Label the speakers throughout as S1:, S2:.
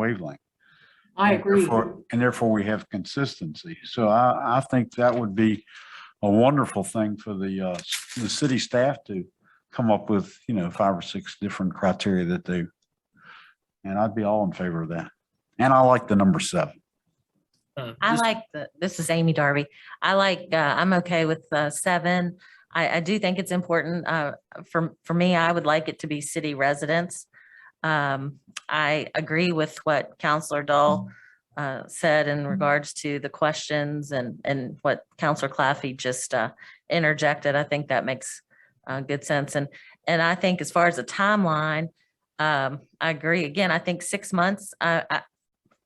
S1: wavelength.
S2: I
S1: And
S2: agree.
S1: therefore- And therefore we have consistency. So I, I think that would be a wonderful thing for the, uh, s- the city staff to come up with, you know, five or six different criteria that they, and I'd be all in favor of that. And I like the number seven.
S3: Uh,
S4: I
S3: this-
S4: like the, this is Amy Darby. I like, uh, I'm okay with, uh, seven. I, I do think it's important, uh, for, for me, I would like it to be city residents. Um, I agree with what Counselor Dahl, uh, said
S3: Mm-hmm.
S4: in regards to the questions and, and what Counselor Claffey just, uh, interjected. I think that makes, uh, good sense. And, and I think as far as the timeline, um, I agree. Again, I think six months, I, I,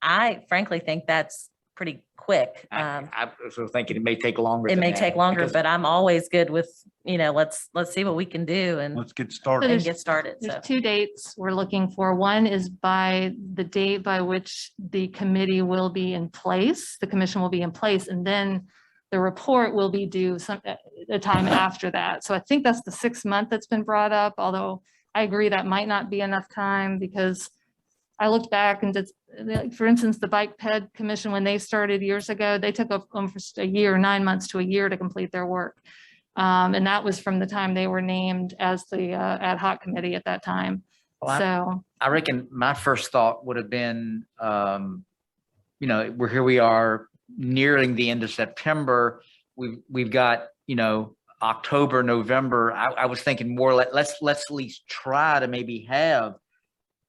S4: I frankly think that's pretty quick.
S3: I
S4: Um,
S3: I was sort of thinking it may take longer.
S4: it
S3: than
S4: may
S3: that,
S4: take longer,
S3: because
S4: but I'm always good with, you know, let's, let's see what we can do
S3: Mm-hmm.
S4: and,
S1: Let's get
S5: So
S1: started.
S4: and
S5: there's-
S4: get started. So,
S5: There's two dates we're looking for. One is by the date by which the committee will be in place, the commission will be in place, and then the report will be due some, uh, a time after that. So I think that's the sixth month that's been brought up, although I agree that might not be enough time because I looked back and just, like, for instance, the Bike Ped Commission, when they started years ago, they took up almost a year, nine months to a year to complete their work. Um, and that was from the time they were named as the uh, ad hoc committee at that time.
S3: Well, I-
S5: So,
S3: I reckon my first thought would have been, um, you know, we're, here we are nearing the end of September. We've, we've got, you know, October, November. I, I was thinking more like, let's, let's at least try to maybe have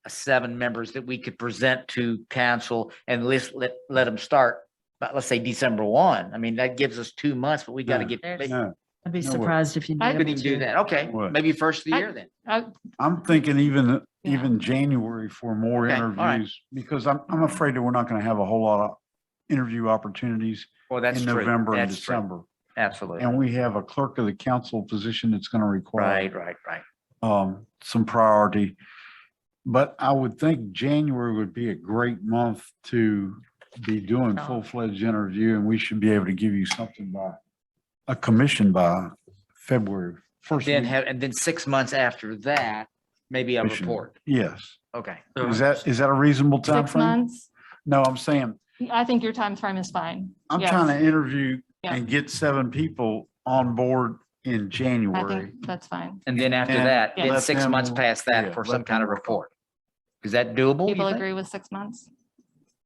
S3: seven members that we could present to council and let's let, let them start, but let's say December one. I mean, that gives us two months, but we got to
S1: Yeah.
S3: get,
S4: There's-
S3: maybe
S1: No,
S6: I'd be
S1: No way.
S6: surprised if you.
S5: I-
S3: we didn't do that. Okay,
S1: What?
S3: maybe first of the
S5: I-
S3: year then.
S5: uh,
S1: I'm thinking even,
S5: Yeah.
S1: even January for more
S3: Okay, all right.
S1: interviews because I'm, I'm afraid that we're not going to have a whole lot of interview opportunities
S3: Well, that's
S1: in
S3: true.
S1: November and
S3: That's true.
S1: December.
S3: Absolutely.
S1: And we have a clerk of the council position that's going to
S3: Right,
S1: require
S3: right, right.
S1: um, some priority. But I would think January would be a great month to be doing
S4: Oh.
S1: full-fledged interview and we should be able to give you something by a commission by February first.
S3: Then
S1: week.
S3: have, and then six months after that, maybe a
S1: Commission.
S3: report.
S1: Yes.
S3: Okay.
S1: Is that, is that a reasonable time
S5: six
S1: frame?
S5: months,
S1: No, I'm saying,
S5: I think your time frame is fine.
S1: I'm
S5: Yes,
S1: trying to interview
S5: Yeah.
S1: and get seven people on board in
S5: I
S1: January.
S5: think that's fine.
S3: And then after
S1: And
S3: that,
S5: Yeah.
S3: then
S1: let
S3: six months
S1: them-
S3: past
S1: yeah,
S3: that for
S1: let
S3: some kind of report. Is that doable? you
S5: People
S3: think?
S5: agree with six months?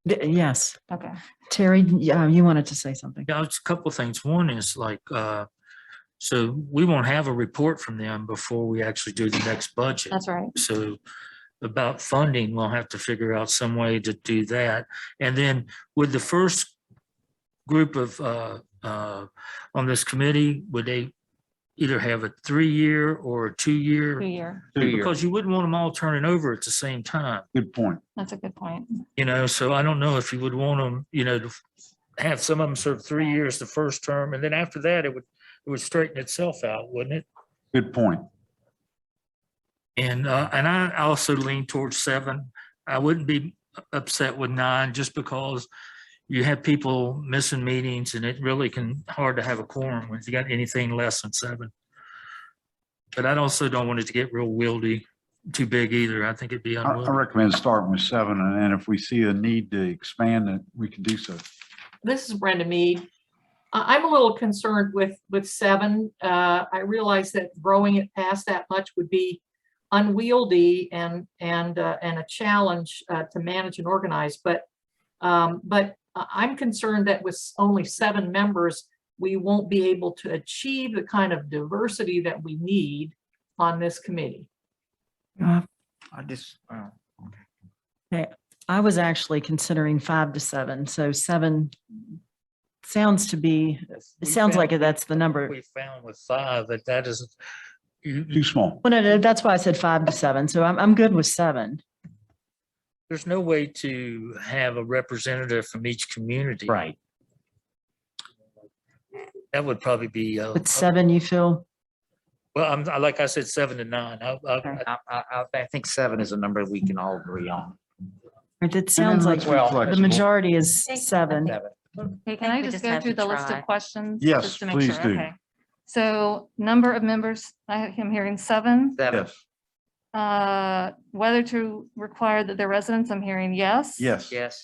S6: D- Yes,
S5: Okay.
S6: Terry, yeah, you wanted to say something.
S7: Yeah, it's a couple of things. One is like, uh, so we won't have a report from them before we actually do the next budget.
S5: That's right.
S7: So about funding, we'll have to figure out some way to do that. And then with the first group of, uh, uh, on this committee, would they either have a three-year or a
S5: Two
S7: two-year?
S5: year.
S3: Two year.
S7: Because you wouldn't want them all turning over at the same time,
S1: Good point.
S5: That's a good point.
S7: you know, so I don't know if you would want them, you know, to have some of them serve three years the first term, and then after that, it would, it would straighten itself out, wouldn't it?
S1: Good point.
S7: And, uh, and I also lean towards seven. I wouldn't be upset with nine just because you have people missing meetings and it really can, hard to have a quorum when you got anything less than seven. But I also don't want it to get real wieldy, too big either. I think it'd be
S1: I I
S7: unwieldy.
S1: recommend starting with seven, and then if we see a need to expand it, we can do so.
S2: This is Brenda Mead. I, I'm a little concerned with, with seven. Uh, I realize that growing it past that much would be unwieldy and, and, uh, and a challenge, uh, to manage and organize, but, um, but I- I'm concerned that with s- only seven members, we won't be able to achieve the kind of diversity that we need on this committee.
S6: Uh,
S3: I just, wow.
S6: I was actually considering five to seven, so seven sounds to be, it sounds like that's the number.
S7: We found with five that that is, you,
S1: Too small.
S6: Well, no, no, that's why I said five to seven, so I'm, I'm good with seven.
S7: there's no way to have a representative from each community.
S3: Right.
S7: That would probably be, uh,
S6: With seven, you feel,
S7: well, I'm, I- like I said, seven to nine. I, I,
S3: I, I, I- I think seven is a number we can all agree on.
S6: it sounds like
S3: well,
S6: the
S1: Flexible.
S6: majority is
S4: Thank you.
S6: seven.
S3: Seven.
S5: Okay, can I
S4: we
S5: just
S4: just
S5: go
S4: have
S5: through
S4: to
S5: the list
S4: try.
S5: of questions?
S1: Yes,
S5: just to make
S1: please
S5: sure?
S1: do.
S5: Okay. So number of members, I- I'm hearing seven.
S3: Seven.
S1: Yes.
S5: Uh, whether to require that their residents, I'm hearing yes.
S1: Yes.
S3: Yes.